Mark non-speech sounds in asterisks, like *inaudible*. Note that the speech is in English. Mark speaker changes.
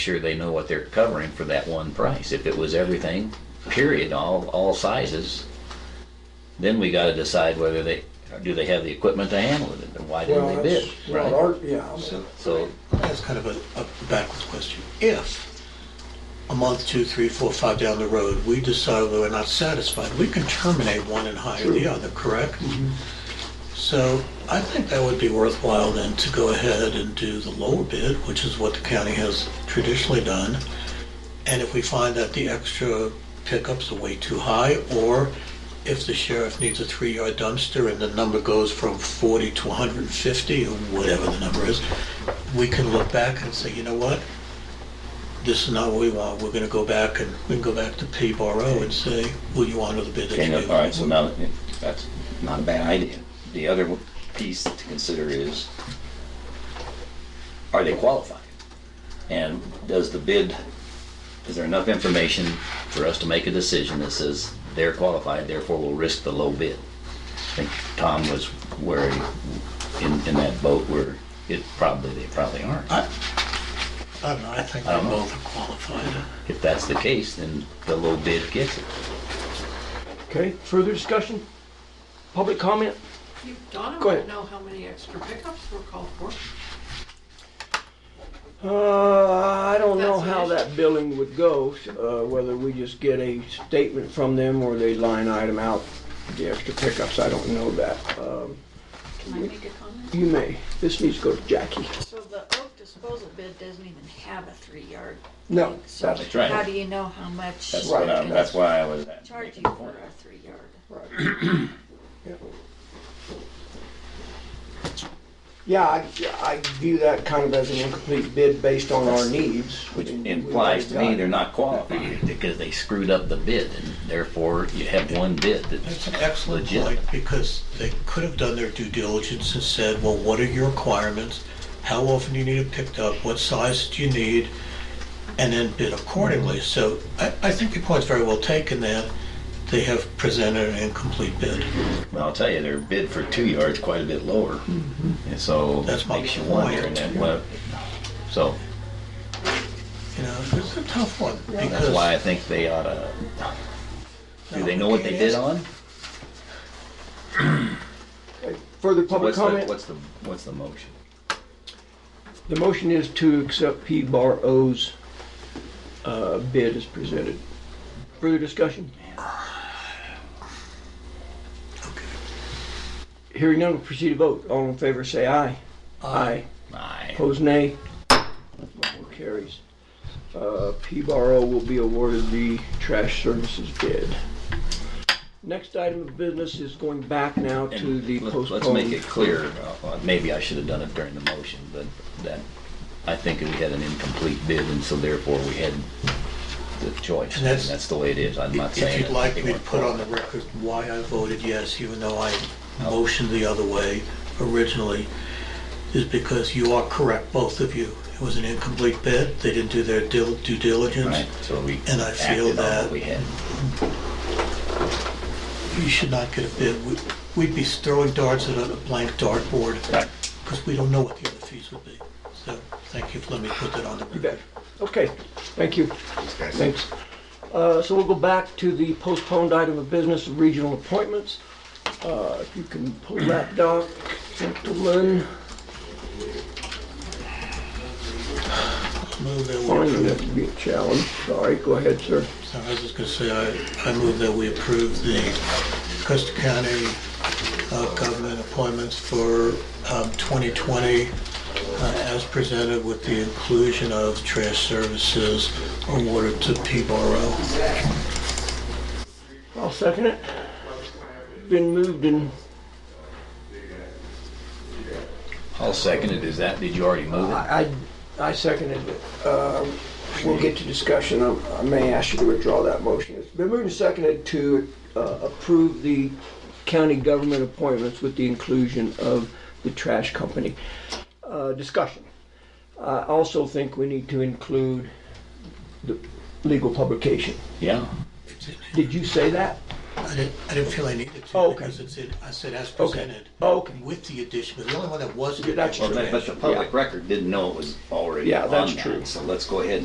Speaker 1: sure they know what they're covering for that one price. If it was everything, period, all, all sizes, then we gotta decide whether they, do they have the equipment to handle it, and why
Speaker 2: Well,
Speaker 1: didn't they
Speaker 2: that's-
Speaker 1: bid,
Speaker 2: well,
Speaker 1: right?
Speaker 2: our- Yeah, I mean,
Speaker 1: So,
Speaker 3: That's kind of a, a backwards question. If a month, two, three, four, five down the road, we decide we're not satisfied, we can terminate one and hire the other, correct? So I think that would be worthwhile then to go ahead and do the lower bid, which is what the county has traditionally done. And if we find that the extra pickups are way too high, or if the sheriff needs a three-yard dumpster and the number goes from 40 to 150, or whatever the number is, we can look back and say, you know what? This is not what we want. We're gonna go back and, we can go back to P Barrow and say, will you honor the bid that
Speaker 1: okay,
Speaker 3: you
Speaker 1: no,
Speaker 3: gave?
Speaker 1: all right, so now, that's not a bad idea. The other piece to consider is, are they qualified? And does the bid, is there enough information for us to make a decision that says they're qualified, therefore we'll risk the low bid? I think Tom was where, he- in, in that boat where it probably, they probably aren't.
Speaker 3: I, I don't know. I think they
Speaker 1: I don't know.
Speaker 3: both are qualified.
Speaker 1: If that's the case, then the low bid gets it.
Speaker 4: Okay, further discussion? Public comment?
Speaker 5: You- Donna
Speaker 4: Go ahead.
Speaker 5: would know how many extra pickups were called for.
Speaker 4: Uh, I don't know
Speaker 5: That's an
Speaker 4: how
Speaker 5: issue.
Speaker 4: that billing would go, uh, whether we just get a statement from them or they line item out the extra pickups. I don't know that. Um,
Speaker 5: Can I make a comment?
Speaker 4: You may. This needs to go to Jackie.
Speaker 6: So the oak disposal bid doesn't even have a three-yard.
Speaker 4: No,
Speaker 6: So
Speaker 4: that's
Speaker 1: right.
Speaker 6: how do you know how much
Speaker 1: That's
Speaker 6: they're
Speaker 1: what I,
Speaker 6: gonna
Speaker 1: that's why I was.
Speaker 6: charge you for a three-yard?
Speaker 4: *clears throat* right. Yeah. Yeah, I, I view that kind of as an incomplete bid based on our needs.
Speaker 1: Which
Speaker 4: and
Speaker 1: implies to
Speaker 4: what
Speaker 1: me
Speaker 4: we've
Speaker 1: they're not qualified because they screwed up the bid and therefore you have one bid
Speaker 3: That's
Speaker 1: that's
Speaker 3: an excellent
Speaker 1: legit.
Speaker 3: point, because they could have done their due diligence and said, well, what are your requirements? How often do you need it picked up? What size do you need? And then bid accordingly.
Speaker 1: Mm-hmm.
Speaker 3: So I, I think your point's very well taken that they have presented an incomplete bid.
Speaker 1: Well, I'll tell you, their bid for two yards quite a bit lower. And so
Speaker 3: Mm-hmm. That's my
Speaker 1: makes you wonder and then what, so
Speaker 3: You know, it's a tough one,
Speaker 1: that's why I
Speaker 3: because
Speaker 1: think they ought to, do they know what they bid on?
Speaker 4: got. Further
Speaker 1: What's
Speaker 4: public
Speaker 1: the,
Speaker 4: comment?
Speaker 1: what's the, what's the motion?
Speaker 4: The motion is to accept P Bar O's uh, bid as presented. Further discussion? Hearing none, we'll proceed to vote. All in favor, say aye. Aye.
Speaker 1: Aye.
Speaker 4: Opposed, nay. Motion carries. Uh, P Bar O will be awarded the trash services bid. Next item of business is going back now to
Speaker 1: And
Speaker 4: the
Speaker 1: let- Let's make
Speaker 4: postponed.
Speaker 1: it clear, uh, uh, maybe I should have done it during the motion, but that, I think we had an incomplete bid, and so therefore we had the choice.
Speaker 3: And that's-
Speaker 1: the way it is, I'm not
Speaker 3: if
Speaker 1: saying.
Speaker 3: you'd
Speaker 1: that
Speaker 3: like
Speaker 1: they
Speaker 3: me to
Speaker 1: weren't
Speaker 3: put on the
Speaker 1: qualified.
Speaker 3: record why I voted yes, even though I motioned the other way originally, is because you are correct, both of you. It was an incomplete bid, they didn't do their dil- due diligence.
Speaker 1: Right, so we
Speaker 3: And I feel
Speaker 1: acted on what
Speaker 3: that-
Speaker 1: we had.
Speaker 3: You should not get a bid. We- We'd be throwing darts at a blank dartboard,
Speaker 1: Right.
Speaker 3: because we don't know what the other fees would be. So, thank you for letting me put that on the
Speaker 4: You
Speaker 3: record.
Speaker 4: bet. Okay, thank you. Thanks. Uh, So we'll go back to the postponed item of business, regional appointments. Uh, If you can pull that doc, gentlemen.
Speaker 3: Move that we
Speaker 4: Finding that
Speaker 3: approve.
Speaker 4: to be a challenge. Sorry, go ahead, sir.
Speaker 3: So I was just gonna say, I, I move that we approve the Custer County uh, government appointments for um, 2020 uh, as presented with the inclusion of trash services awarded to P. Barrow.
Speaker 4: I'll second it. Been moved and,
Speaker 1: I'll second it, is that, did you already move it?
Speaker 4: I, I I seconded it. Uh, We'll get to discussion. I I may ask you to withdraw that motion. It's been moved and seconded to uh, approve the county government appointments with the inclusion of the trash company. Uh, Discussion. I also think we need to include the legal publication.
Speaker 1: Yeah,
Speaker 4: Did you say that?
Speaker 3: I didn't, I didn't feel I needed to,
Speaker 4: Oh, Okay.
Speaker 3: because it's in, I said as
Speaker 4: Okay. Oh,
Speaker 3: presented.
Speaker 4: Okay.
Speaker 3: With the addition, but the only one that wasn't.
Speaker 4: That's
Speaker 1: well, but but the public
Speaker 4: Yeah.
Speaker 1: record didn't know it was already
Speaker 4: Yeah,
Speaker 1: on
Speaker 4: that's
Speaker 1: that,
Speaker 4: true.
Speaker 1: so let's go ahead